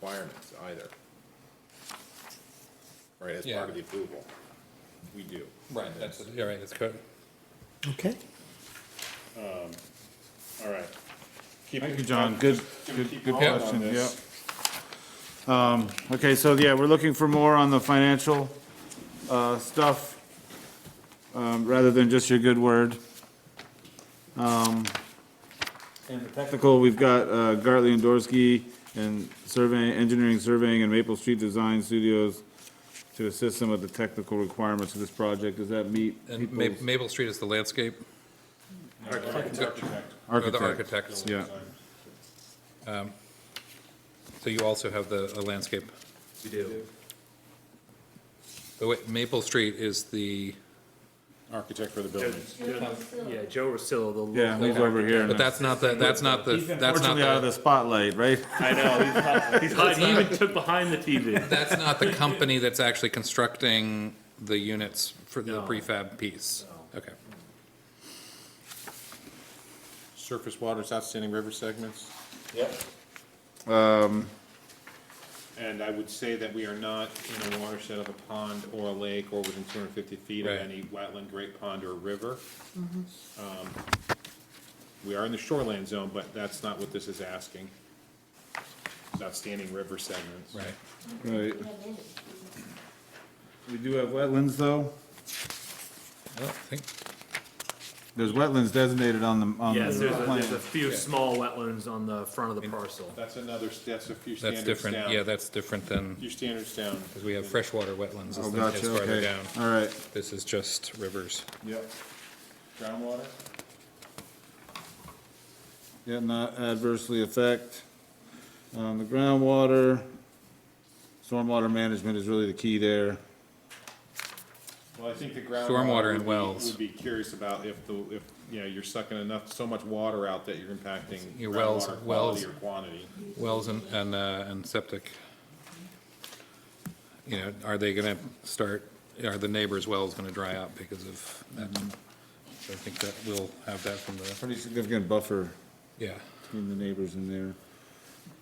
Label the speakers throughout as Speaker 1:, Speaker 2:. Speaker 1: requirements either. Right, as
Speaker 2: Yeah.
Speaker 1: part of the approval. We do.
Speaker 2: Right, that's, yeah, right, that's good.
Speaker 3: Okay.
Speaker 1: Um, All right. Keep-
Speaker 4: Thank you, John. Good, good,
Speaker 1: keep
Speaker 4: good
Speaker 1: going on
Speaker 4: question, yeah.
Speaker 1: this.
Speaker 4: Um, Okay, so yeah, we're looking for more on the financial uh, stuff, um, rather than just your good word. Um, And the technical, we've got uh, Gartley and Dorsey and survey, engineering surveying and Maple Street Design Studios to assist them with the technical requirements of this project. Does that meet
Speaker 2: And Ma-
Speaker 4: people's
Speaker 2: Maple Street is the landscape, or the
Speaker 4: architect?
Speaker 2: architects.
Speaker 4: Yeah,
Speaker 2: So you also have the a landscape.
Speaker 5: We do.
Speaker 2: But wait, Maple Street is the,
Speaker 1: Architect for the building.
Speaker 5: Yeah, Joe Rosillo, the.
Speaker 4: yeah,
Speaker 5: local
Speaker 4: he's over
Speaker 5: architect.
Speaker 4: here.
Speaker 2: but
Speaker 4: now.
Speaker 2: that's not the, that's not the, that's not
Speaker 4: Unfortunately, out of the
Speaker 2: the,
Speaker 4: spotlight, right?
Speaker 5: I know, he's hiding, he even took behind the TV.
Speaker 2: that's not the company that's actually constructing the units for the
Speaker 5: No.
Speaker 2: prefab piece. Okay.
Speaker 1: Surface waters, outstanding river segments. Yep. Um. And I would say that we are not in a watershed of a pond or a lake or within two hundred and fifty feet of
Speaker 2: Right.
Speaker 1: any wetland, great pond or river. Um, We are in the shoreland zone, but that's not what this is asking. It's Outstanding river segments.
Speaker 2: Right.
Speaker 4: Right. We do have wetlands, though.
Speaker 2: I don't think,
Speaker 4: There's wetlands designated on the, on
Speaker 5: Yes,
Speaker 4: the
Speaker 5: there's a, there's a
Speaker 4: plan.
Speaker 5: few small wetlands on the front of the parcel.
Speaker 1: That's another, that's a few
Speaker 2: that's
Speaker 1: standards down.
Speaker 2: different, yeah, that's different than,
Speaker 1: Few standards down.
Speaker 2: because we have freshwater wetlands
Speaker 4: Oh,
Speaker 2: is the-
Speaker 4: gotcha,
Speaker 2: is farther
Speaker 4: okay,
Speaker 2: down.
Speaker 4: all right.
Speaker 2: This is just rivers.
Speaker 4: Yep.
Speaker 1: Groundwater?
Speaker 4: Yeah, not adversely affect, um, the groundwater, stormwater management is really the key there.
Speaker 1: Well, I think the groundwater.
Speaker 2: Stormwater
Speaker 1: would
Speaker 2: and
Speaker 1: be-
Speaker 2: wells.
Speaker 1: Would be curious about if the, if, you know, you're sucking enough, so much water out that you're impacting
Speaker 2: Your wells-
Speaker 1: groundwater
Speaker 2: wells.
Speaker 1: quality or quantity.
Speaker 2: Wells and, and, uh, and septic. You know, are they gonna start, are the neighbor's wells gonna dry up because of that? So I think that we'll have that from the,
Speaker 4: Pretty significant buffer
Speaker 2: yeah.
Speaker 4: between the neighbors in there.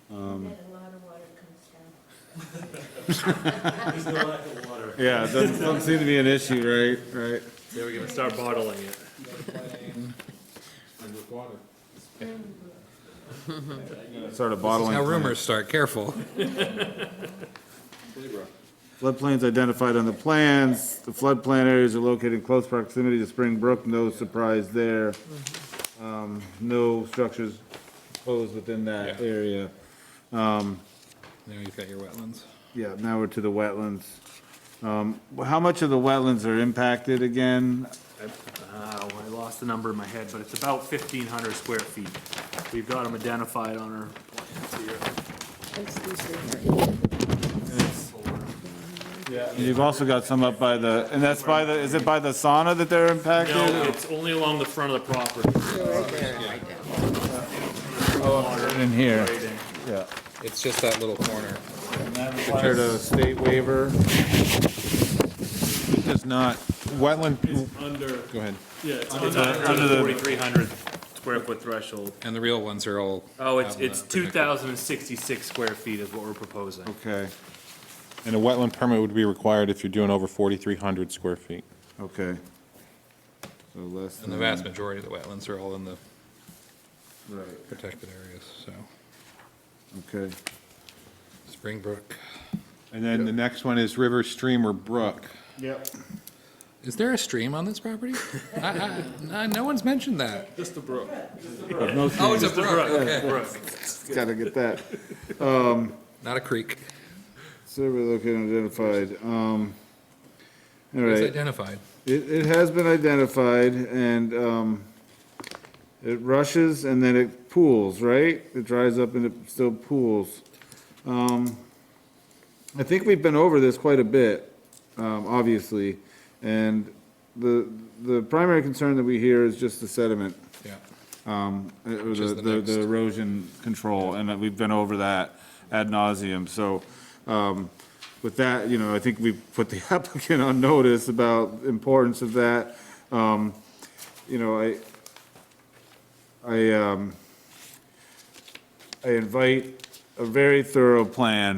Speaker 6: That a lot of water comes down.
Speaker 4: Yeah, it doesn't, doesn't seem to be an issue, right, right?
Speaker 5: They were gonna start bottling it.
Speaker 1: Underwater.
Speaker 4: Sort of
Speaker 2: This is
Speaker 4: bottling.
Speaker 2: how
Speaker 4: plant.
Speaker 2: rumors start, careful.
Speaker 4: Floodplains identified on the plans, the floodplain areas are located in close proximity to Spring Brook, no surprise there. Um, No structures posed within that
Speaker 2: Yeah.
Speaker 4: area.
Speaker 2: Now you've got your wetlands.
Speaker 4: Yeah, now we're to the wetlands. Um, How much of the wetlands are impacted again?
Speaker 5: Uh, I lost the number in my head, but it's about fifteen hundred square feet. We've got them identified on our plans here.
Speaker 4: And You've also got some up by the, and that's by the, is it by the sauna that they're impacted?
Speaker 5: No, it's only along the front of the property.
Speaker 4: Oh, In here,
Speaker 5: Right in.
Speaker 4: yeah.
Speaker 2: It's just that little corner.
Speaker 4: Compared to state waiver.
Speaker 1: Does not, wetland,
Speaker 5: It's under,
Speaker 1: go ahead.
Speaker 5: yeah, it's
Speaker 4: Under
Speaker 5: under,
Speaker 4: the- under the-
Speaker 5: the forty-three hundred square foot threshold.
Speaker 2: And the real ones are all.
Speaker 5: Oh, it's,
Speaker 2: out in
Speaker 5: it's
Speaker 2: the
Speaker 5: two
Speaker 2: projected.
Speaker 5: thousand and sixty-six square feet is what we're proposing.
Speaker 4: Okay,
Speaker 1: And a wetland permit would be required if you're doing over forty-three hundred square feet.
Speaker 4: okay. So less
Speaker 2: And the
Speaker 4: than,
Speaker 2: vast majority of the wetlands are all in the
Speaker 4: right,
Speaker 2: protected areas, so.
Speaker 4: okay.
Speaker 2: Springbrook.
Speaker 1: And then the next one is river, stream, or brook.
Speaker 4: Yep.
Speaker 2: Is there a stream on this property? I, I, no one's mentioned that.
Speaker 1: Just the brook.
Speaker 2: Oh, it's a brook, okay.
Speaker 4: Gotta get that.
Speaker 2: Not a creek.
Speaker 4: Survey located and identified, um, all
Speaker 2: It's
Speaker 4: right.
Speaker 2: identified.
Speaker 4: It, it has been identified and, um, it rushes and then it pools, right? It dries up and it still pools. Um, I think we've been over this quite a bit, um, obviously. And the, the primary concern that we hear is just the sediment.
Speaker 2: Yeah.
Speaker 4: um, uh, or
Speaker 2: is
Speaker 4: the,
Speaker 2: the
Speaker 4: the- the
Speaker 2: next.
Speaker 4: erosion control, and that we've been over that ad nauseum. So, um, with that, you know, I think we put the applicant on notice about the importance of that. Um, you know, I, I, um, I invite a very thorough plan